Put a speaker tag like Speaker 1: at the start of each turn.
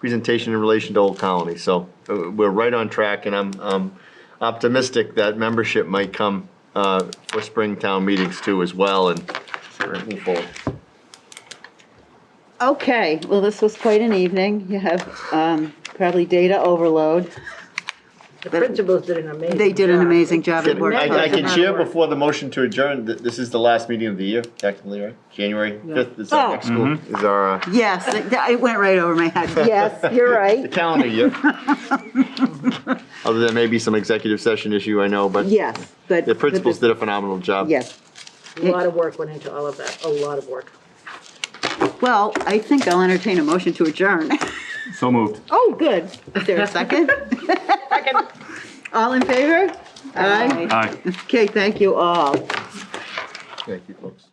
Speaker 1: presentation in relation to Old Colony. So uh, we're right on track, and I'm um, optimistic that membership might come uh, for spring town meetings too as well, and move forward.
Speaker 2: Okay, well, this was quite an evening. You have um, probably data overload.
Speaker 3: The principals did an amazing.
Speaker 2: They did an
Speaker 3: job.
Speaker 2: amazing job at work.
Speaker 1: I I can
Speaker 3: Work.
Speaker 1: share before the motion to adjourn, that this is the last meeting of the year, technically, right? January 5th is
Speaker 2: Oh.
Speaker 1: our next school, is our, uh,
Speaker 2: Yes, it it went right over my head. Yes, you're
Speaker 1: the
Speaker 2: right.
Speaker 1: calendar year. Other than maybe some executive session issue, I know, but
Speaker 2: Yes, but.
Speaker 1: the principals did a phenomenal job.
Speaker 2: Yes.
Speaker 3: A lot of work went into all of that, a lot of work.
Speaker 2: Well, I think I'll entertain a motion to adjourn.
Speaker 4: So moved.
Speaker 2: Oh, good. Is there a second? All in favor? Aye.
Speaker 4: Aye.
Speaker 2: Okay, thank you all.
Speaker 1: Thank you, folks.